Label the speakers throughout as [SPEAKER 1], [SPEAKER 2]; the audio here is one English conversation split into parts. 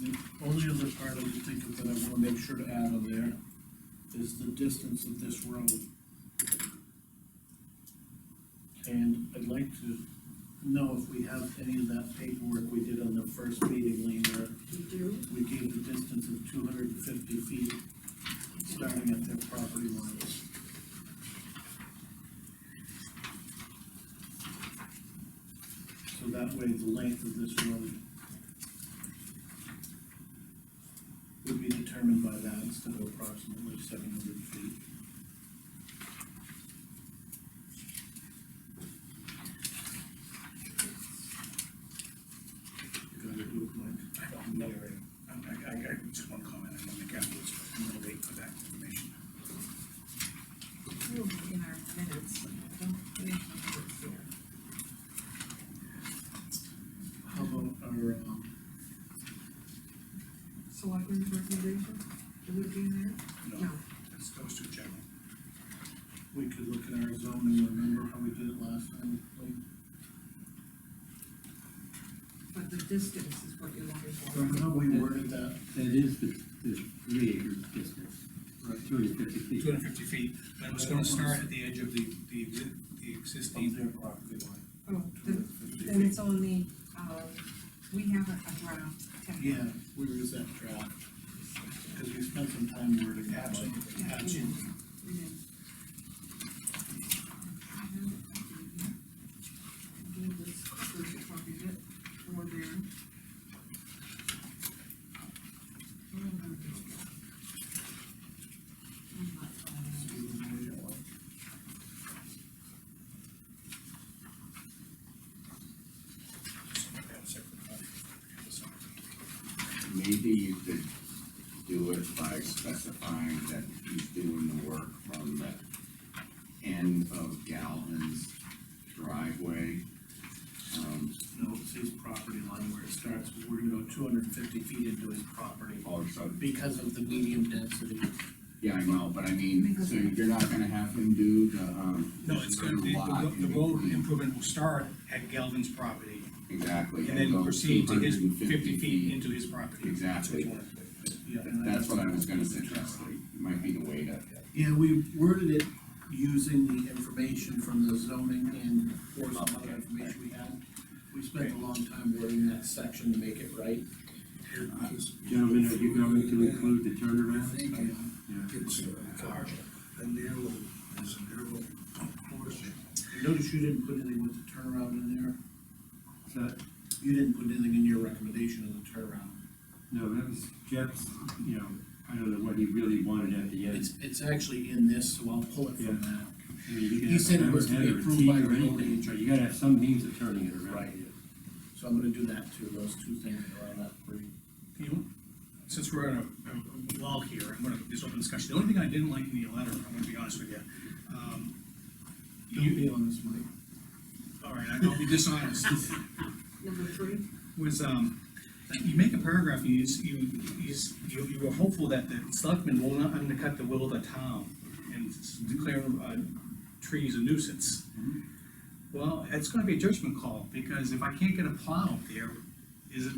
[SPEAKER 1] The only other part I can think of that I wanna make sure to add on there is the distance of this road. And I'd like to know if we have any of that paperwork we did on the first meeting, Lean, where
[SPEAKER 2] We do,
[SPEAKER 1] we gave the distance of two hundred and fifty feet, starting at their property lines. So that way, the length of this road would be determined by that instead of approximately seven hundred feet. You gotta do it, Mike.
[SPEAKER 3] I don't know, I, I, I got just one comment, I'm gonna make afterwards, but I'm gonna wait for that information.
[SPEAKER 2] we'll be in our minutes, but I don't think it's here.
[SPEAKER 1] How about our, um,
[SPEAKER 2] Selectmen's recommendation, it would be in there?
[SPEAKER 3] No, that's, that was too general.
[SPEAKER 1] we could look at our zoning, remember how we did it last time? like,
[SPEAKER 2] But the distance is what you're looking for.
[SPEAKER 1] Remember how we worded that?
[SPEAKER 4] That is the, the three acre distance,
[SPEAKER 1] Right.
[SPEAKER 4] two hundred fifty feet.
[SPEAKER 3] Two hundred fifty feet, and it was gonna start at the edge of the, the, exi- the
[SPEAKER 1] From
[SPEAKER 3] existing,
[SPEAKER 1] their property line.
[SPEAKER 2] Oh, the-
[SPEAKER 1] 250.
[SPEAKER 2] and it's on the, um, we have a a draft template.
[SPEAKER 1] Yeah, where is that draft? Because we spent some time wording that. one.
[SPEAKER 3] absolutely,
[SPEAKER 2] Yeah.
[SPEAKER 3] absolutely.
[SPEAKER 2] We did. I have it, I believe, yeah. I gave this first copy of it, or there. Where am I going? I'm not finding it.
[SPEAKER 3] So I have a separate copy. That's all.
[SPEAKER 5] Maybe you could do it by specifying that he's doing the work from the end of Galvin's driveway. Um,
[SPEAKER 1] No, it's his property line where it starts, we're gonna go two hundred and fifty feet into his property
[SPEAKER 5] also,
[SPEAKER 1] because of the medium density.
[SPEAKER 5] yeah, I know, but I mean, so you're not gonna have him do the, um.
[SPEAKER 3] No, it's gonna, the,
[SPEAKER 5] lot in
[SPEAKER 3] the- the road
[SPEAKER 5] between.
[SPEAKER 3] improvement will start at Galvin's property,
[SPEAKER 5] Exactly.
[SPEAKER 3] and then
[SPEAKER 5] go
[SPEAKER 3] proceed to his
[SPEAKER 5] 250
[SPEAKER 3] fifty feet into his property.
[SPEAKER 5] Exactly.
[SPEAKER 3] That's what you wanna do.
[SPEAKER 1] Yeah, and I-
[SPEAKER 5] That's what I was gonna suggest, like, it might be the way to,
[SPEAKER 1] Yeah, we worded it using the information from the zoning and or some other information we had. We spent a long time wording that section to make it right.
[SPEAKER 4] Gentlemen, are you going to include the turnaround? Yeah.
[SPEAKER 6] It's a car, a narrow, there's a narrow portion.
[SPEAKER 1] Notice you didn't put anything with the turnaround in there.
[SPEAKER 4] So,
[SPEAKER 1] You didn't put anything in your recommendation of the turnaround.
[SPEAKER 4] no, that was Jeff's, you know, I don't know what he really wanted at the end.
[SPEAKER 1] It's, it's actually in this, so I'll pull it from that.
[SPEAKER 4] I mean, you can
[SPEAKER 1] he
[SPEAKER 4] have a
[SPEAKER 1] said it was to be
[SPEAKER 4] hammerhead or a
[SPEAKER 1] approved by
[SPEAKER 4] teeth or
[SPEAKER 1] the road
[SPEAKER 4] anything,
[SPEAKER 1] agent.
[SPEAKER 4] But you gotta have some means of turning it around.
[SPEAKER 1] Right. So I'm gonna do that too, those two things around that three.
[SPEAKER 3] You, since we're on a, a wall here, I'm gonna, this open discussion, the only thing I didn't like in the letter, I'm gonna be honest with you. um,
[SPEAKER 1] Don't
[SPEAKER 3] You,
[SPEAKER 1] be honest, Mike.
[SPEAKER 3] all right, I don't be dishonest,
[SPEAKER 2] Number three?
[SPEAKER 3] was, um, you make a paragraph, you, s- you, you, s- you you were hopeful that the selectmen will not undercut the will of the town and s- declare, uh, trees a nuisance.
[SPEAKER 5] Mm-hmm.
[SPEAKER 3] Well, it's gonna be a judgment call, because if I can't get a plow up there, is it,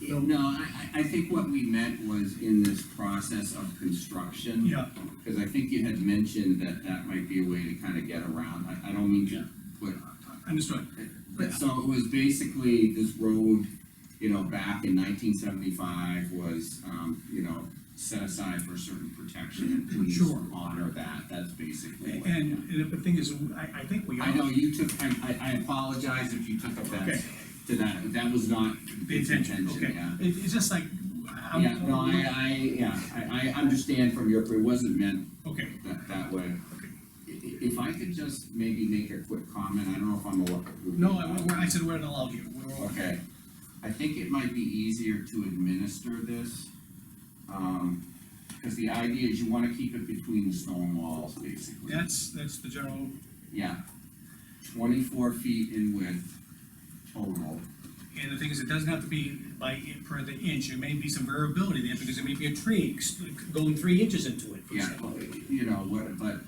[SPEAKER 5] no, I, I, I think what we meant was in this process of construction.
[SPEAKER 3] yeah,
[SPEAKER 5] Because I think you had mentioned that that might be a way to kind of get around, I, I don't mean
[SPEAKER 3] Yeah.
[SPEAKER 5] to put,
[SPEAKER 3] understood,
[SPEAKER 5] but so it was basically this road, you know, back in nineteen seventy-five was, um, you know, set aside for certain protection and please
[SPEAKER 3] Sure.
[SPEAKER 5] honor that, that's basically what.
[SPEAKER 3] and, and the thing is, I, I think we all.
[SPEAKER 5] I know you took, I, I, I apologize if you took offense
[SPEAKER 3] Okay.
[SPEAKER 5] to that, that was not.
[SPEAKER 3] The intention, okay,
[SPEAKER 5] yeah.
[SPEAKER 3] It- it's just like, I'm.
[SPEAKER 5] Yeah, no, I, I, yeah, I, I understand from your, it wasn't meant
[SPEAKER 3] Okay,
[SPEAKER 5] that, that way.
[SPEAKER 3] okay,
[SPEAKER 5] I- i- If I could just maybe make a quick comment, I don't know if I'm allowed.
[SPEAKER 3] no, I, we're- I said we're not allowed here, we're all.
[SPEAKER 5] Okay, I think it might be easier to administer this, um, because the idea is you wanna keep it between the stone walls, basically.
[SPEAKER 3] That's, that's the general,
[SPEAKER 5] Yeah, twenty-four feet in width total,
[SPEAKER 3] and the thing is, it doesn't have to be by, in- per the inch, there may be some variability there, because there may be a tree ex- going three inches into it, for
[SPEAKER 5] yeah,
[SPEAKER 3] example.
[SPEAKER 5] you know, what, but,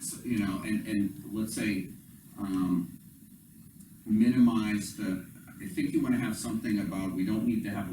[SPEAKER 5] so, you know, and, and let's say, um, minimize the, I think you wanna have something about, we don't need to have a